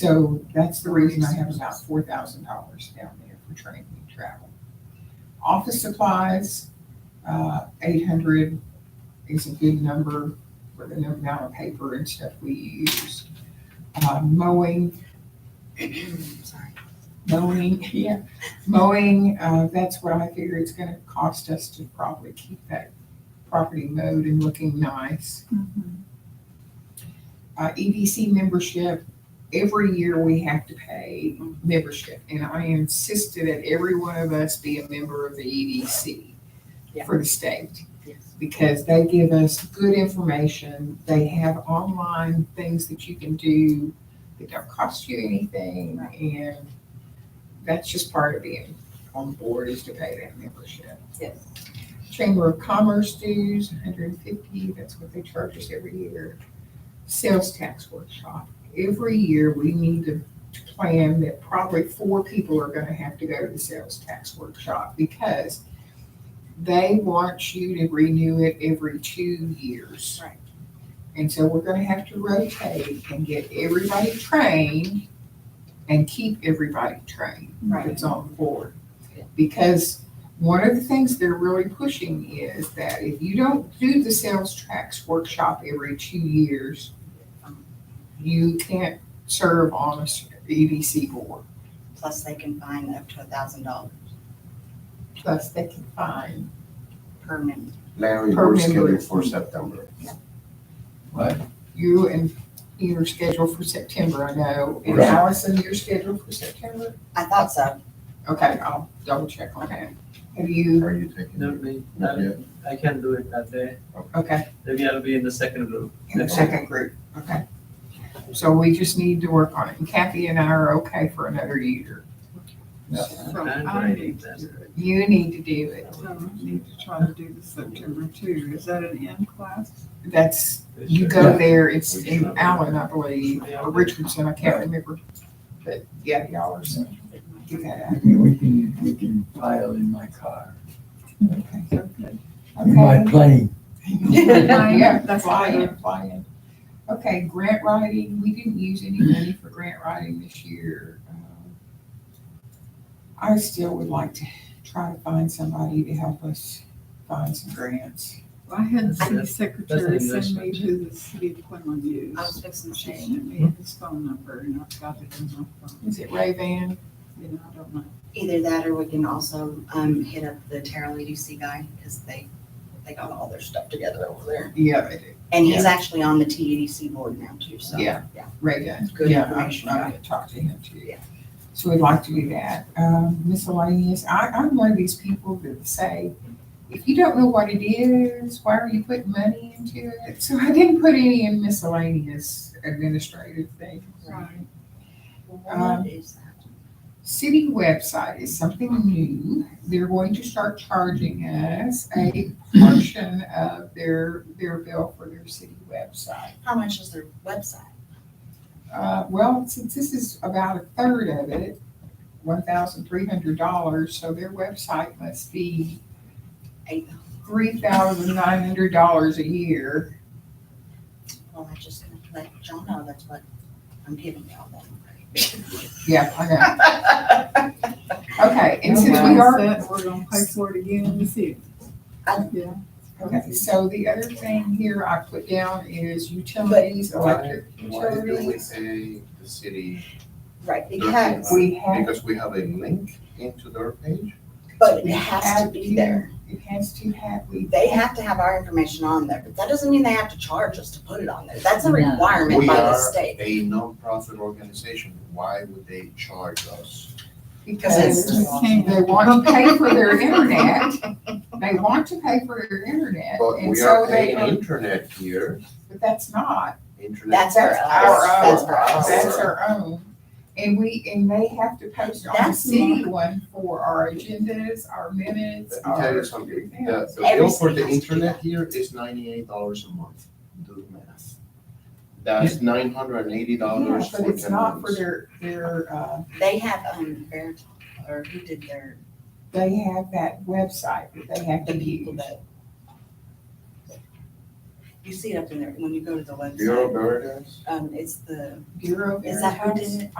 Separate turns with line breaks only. So that's the reason I have about four thousand dollars down there for training and travel. Office supplies, uh, eight hundred is a good number for the amount of paper and stuff we use. Uh, mowing,
Sorry.
mowing, yeah, mowing, uh, that's what I figure it's gonna cost us to probably keep that property mowed and looking nice.
Mm-hmm.
uh, EDC membership, every year we have to pay membership. And I insisted that every one of us be a member of the EDC
Yeah.
for the state
Yes.
because they give us good information. They have online things that you can do that don't cost you anything. And that's just part of being on board is to pay that membership.
Yes.
Chamber of Commerce dues, hundred and fifty, that's what they charge us every year. Sales tax workshop, every year we need to plan that probably four people are gonna have to go to the sales tax workshop because they want you to renew it every two years.
Right.
And so we're gonna have to rotate and get everybody trained and keep everybody trained
Right.
that's on board.
Yeah.
Because one of the things they're really pushing is that if you don't do the sales tax workshop every two years, you can't serve on a s- EDC board.
Plus they can find up to a thousand dollars
Plus, they can find,
per member.
Larry,
Per
we're
member.
scheduled for September.
you and you're scheduled for September, I know. And
Right.
Allison, you're scheduled for September?
I thought so.
Okay, I'll double check on that. Have you,
Are you taking?
No, we,
Not yet.
I can't do it that day.
okay,
Maybe I'll be in the second group.
in the
Next
second group, okay. So we just need to work on it. And Kathy and I are okay for another year.
Yeah.
So
And
I
I
need
need
to
that.
do it.
You need to do it.
So I need to try to do the September two. Is that an in class?
That's,
It's
you
just-
go there, it's in
Richardson.
Allen, I believe, or Richardson, I can't remember. But yeah, y'all are so, do that.
Okay, we can, we can file in my car, in my
Okay.
plane.
Yeah,
That's
fly
fine.
in, fly in. Okay, grant writing, we didn't use any money for grant writing this year. Um, I still would like to try to find somebody to help us find some grants.
I had the city
That's-
secretary
an
send me
investment.
who the city of Quinlan
I was
used.
fixing to
She
say.
sent me his phone number and I've got it in my phone.
Is it Ray Van?
You know, I don't know.
Either that or we can also, um, hit up the Terrell EDC guy because they, they got all their stuff together over there.
Yeah, they do.
And he's actually on the TEDC board now too, so.
Yeah. Ray Van.
Good
Yeah, I'm-
information,
I'm
yeah.
gonna talk to him too.
Yeah.
So we'd like to do that. Um, miscellaneous, I, I'm one of these people that say, if you don't know what it is, why are you putting money into it? So I didn't put any in miscellaneous administrative things.
Right.
Well, What is that?
City website is something new. They're going to start charging us a portion of their, their bill for their city website.
How much is their website?
Uh, well, since this is about a third of it, one thousand three hundred dollars, so their website must be
Eight.
three thousand nine hundred dollars a year.
Well, I'm just gonna let y'all know that's what I'm giving y'all then.
Yeah, I know. Okay, and since
Okay,
we are,
set, We're gonna pay for it again this year.
I-
Yeah,
okay, so the other thing here I put down is utilities, electric
Why do we
utilities.
pay the city?
Right,
their
because,
fee?
We
Oh.
have,
Because we have a link into their page?
but it has to be there.
it has to have, we,
They have to have our information on there, but that doesn't mean they have to charge us to put it on there. That's a
No.
requirement
We
by the
are
state.
a nonprofit organization. Why would they charge us?
because
it's-
they want to pay for their internet. They want to pay for their internet,
But
and
we
so
are
they
paying
don't
internet here,
But that's not,
internet.
That's our,
That's our
that's
own.
our.
that's
Oh.
our own. And we, and they have to post on the
That's
city
not-
one for our agendas, our minutes,
Let me tell
our.
you something, the, the
Every
bill for
city
the
has to do
internet
that.
here is ninety-eight dollars a month, do the math. That's nine hundred and eighty
Yeah,
dollars for
but
ten
it's not for
months.
their, their, uh,
They have, um, Veritel, or who did their,
they have that website that they have
the
to
people
use.
that. You see it up in there when you go to the website.
Bureau of Veritas?
Um, it's the,
Bureau of
is that how it
Veritas.
is?